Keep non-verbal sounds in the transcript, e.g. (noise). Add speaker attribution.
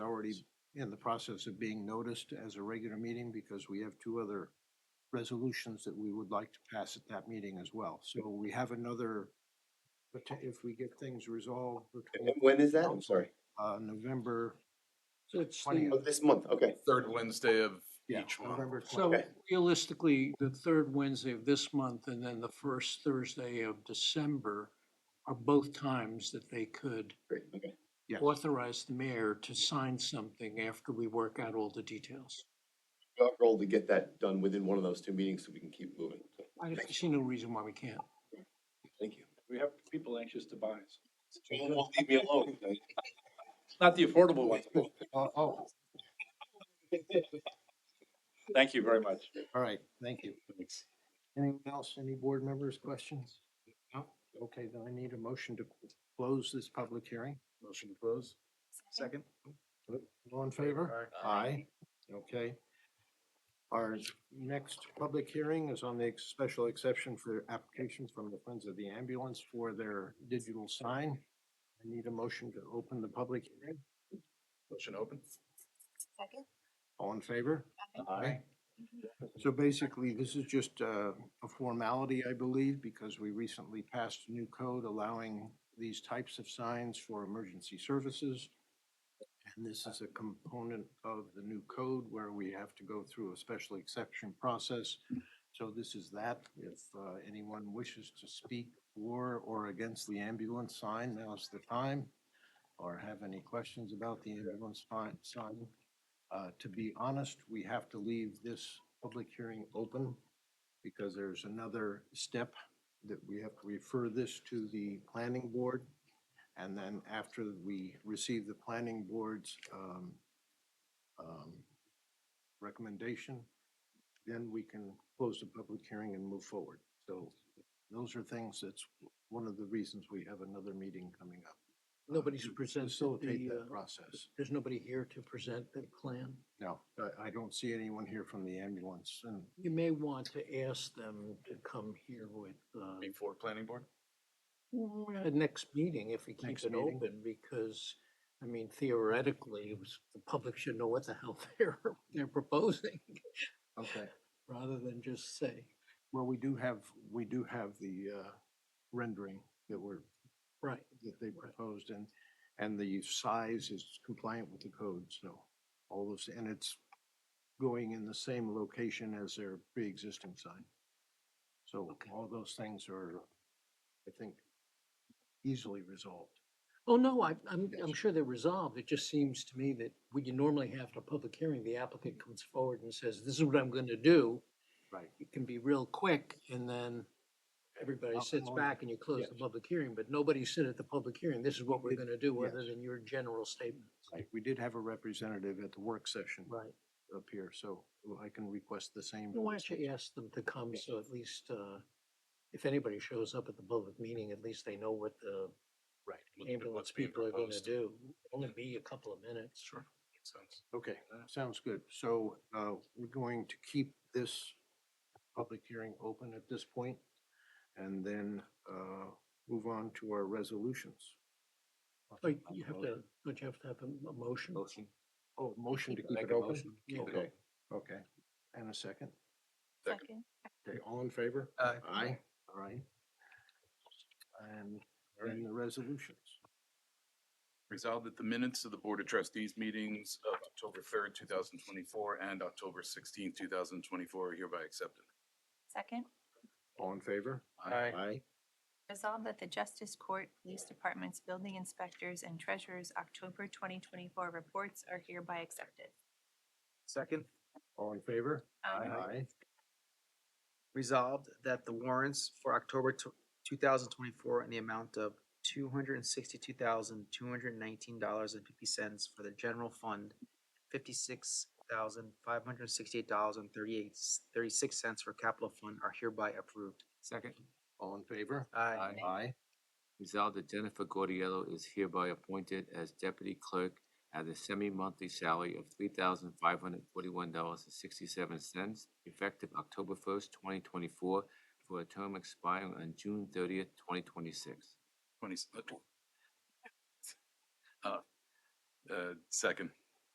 Speaker 1: already in the process of being noticed as a regular meeting because we have two other resolutions that we would like to pass at that meeting as well. So we have another, but if we get things resolved between,
Speaker 2: When is that? I'm Oh, sorry.
Speaker 1: uh, November,
Speaker 3: So it's
Speaker 2: Oh,
Speaker 1: Twentieth.
Speaker 3: the,
Speaker 2: this month, okay.
Speaker 4: Third Wednesday of
Speaker 1: yeah,
Speaker 4: each month.
Speaker 1: November
Speaker 3: so
Speaker 1: twentieth.
Speaker 3: realistically, the third Wednesday of this month and then the first Thursday of December are both times that they could
Speaker 2: Great, okay.
Speaker 1: Yes.
Speaker 3: authorize the mayor to sign something after we work out all the details.
Speaker 2: We got roll to get that done within one of those two meetings so we can keep moving. So,
Speaker 3: I see no reason why we can't.
Speaker 2: Thank you.
Speaker 5: We have people anxious to buy.
Speaker 2: Don't leave me alone.
Speaker 5: Not the affordable ones.
Speaker 1: Oh, oh,
Speaker 5: Thank you very much.
Speaker 1: all right, thank you. Anyone else, any board members, questions? No? Okay, then I need a motion to close this public hearing.
Speaker 4: Motion to close. Second.
Speaker 1: All in favor? Aye. Okay. Our next public hearing is on the ex- special exception for application from the Friends of the Ambulance for their digital sign. I need a motion to open the public hearing.
Speaker 4: Motion open.
Speaker 6: Second?
Speaker 1: All in favor?
Speaker 4: Aye.
Speaker 1: So basically, this is just uh, a formality, I believe, because we recently passed a new code allowing these types of signs for emergency services. And this is a component of the new code where we have to go through a special exception process. So this is that. If uh, anyone wishes to speak for or against the ambulance sign, now's the time. Or have any questions about the ambulance fi- sign, uh, to be honest, we have to leave this public hearing open because there's another step that we have to refer this to the planning board. And then after we receive the planning board's, um, um, recommendation, then we can close the public hearing and move forward. So those are things, that's one of the reasons we have another meeting coming up. uh,
Speaker 3: Nobody's
Speaker 1: to
Speaker 3: presented
Speaker 1: Facilitate
Speaker 3: the,
Speaker 1: that
Speaker 3: uh,
Speaker 1: process.
Speaker 3: there's nobody here to present the plan.
Speaker 1: No, I, I don't see anyone here from the ambulance and
Speaker 3: You may want to ask them to come here with, uh,
Speaker 4: Before planning board?
Speaker 3: Uh, Next meeting, if we keep
Speaker 1: Next
Speaker 3: it
Speaker 1: meeting.
Speaker 3: open, because, I mean, theoretically, it was- the public should know what the hell (laughs) they're, they're proposing,
Speaker 1: Okay,
Speaker 3: rather than just say,
Speaker 1: well, we do have, we do have the uh, rendering that were,
Speaker 3: right,
Speaker 1: that they
Speaker 3: Right.
Speaker 1: proposed and, and the size is compliant with the code, so all those, and it's going in the same location as their pre-existing sign. So
Speaker 3: Okay.
Speaker 1: all those things are, I think, easily resolved.
Speaker 3: oh, no, I, I'm, I'm
Speaker 1: Yes.
Speaker 3: sure they're resolved, it just seems to me that what you normally have at a public hearing, the applicant comes forward and says, this is what I'm gonna do.
Speaker 1: Right.
Speaker 3: It can be real quick, and then everybody
Speaker 1: I'll-
Speaker 3: sits
Speaker 1: I'll-
Speaker 3: back and you close the
Speaker 1: yes.
Speaker 3: public hearing, but nobody said at the public hearing, this is what we're
Speaker 1: It-
Speaker 3: gonna do, other
Speaker 1: yes.
Speaker 3: than your general statements.
Speaker 1: Like, we did have a representative at the work session
Speaker 3: Right.
Speaker 1: up here, so I can request the same.
Speaker 3: Why
Speaker 1: for
Speaker 3: don't
Speaker 1: this
Speaker 3: you ask them to come, so at least, uh, if anybody shows up at the public meeting, at least they know what the
Speaker 1: Right.
Speaker 3: ambulance people are gonna do. Only be a couple of minutes.
Speaker 4: Sure. Makes sense.
Speaker 1: Okay, sounds good. So uh, we're going to keep this public hearing open at this point and then uh, move on to our resolutions.
Speaker 3: Oh, you- you have to, don't you have to have a a motion?
Speaker 4: Motion.
Speaker 1: Oh, motion to keep
Speaker 4: Make
Speaker 1: it
Speaker 4: a
Speaker 1: open?
Speaker 4: motion.
Speaker 3: Yeah.
Speaker 1: Okay, okay. And a second?
Speaker 4: Second.
Speaker 6: Second.
Speaker 1: Okay, all in favor?
Speaker 4: Aye.
Speaker 1: Aye. All right. And then the resolutions.
Speaker 4: Resolved that the minutes of the Board of Trustees meetings of October third, two thousand twenty-four and October sixteenth, two thousand twenty-four are hereby accepted.
Speaker 6: Second,
Speaker 1: All in favor?
Speaker 4: Aye.
Speaker 1: Aye.
Speaker 6: resolve that the Justice Court, Police Departments, Building Inspectors, and Treasurers' October 2024 reports are hereby accepted.
Speaker 7: Second,
Speaker 1: All in favor?
Speaker 6: Aye.
Speaker 1: Aye.
Speaker 7: resolved that the warrants for October two thousand twenty-four in the amount of two hundred and sixty-two thousand, two hundred and nineteen dollars and fifty cents for the general fund, fifty-six thousand, five hundred and sixty-eight dollars and thirty-eight, thirty-six cents for capital fund are hereby approved.
Speaker 8: Second,
Speaker 1: All in favor?
Speaker 7: Aye.
Speaker 1: Aye.
Speaker 8: resolved that Jennifer Gordiello is hereby appointed as deputy clerk at a semi-monthly salary of three thousand five hundred forty-one dollars and sixty-seven cents, effective October first, twenty twenty-four, for a term expiring on June thirtieth, twenty twenty-six.
Speaker 4: Twenty. Uh, uh, second.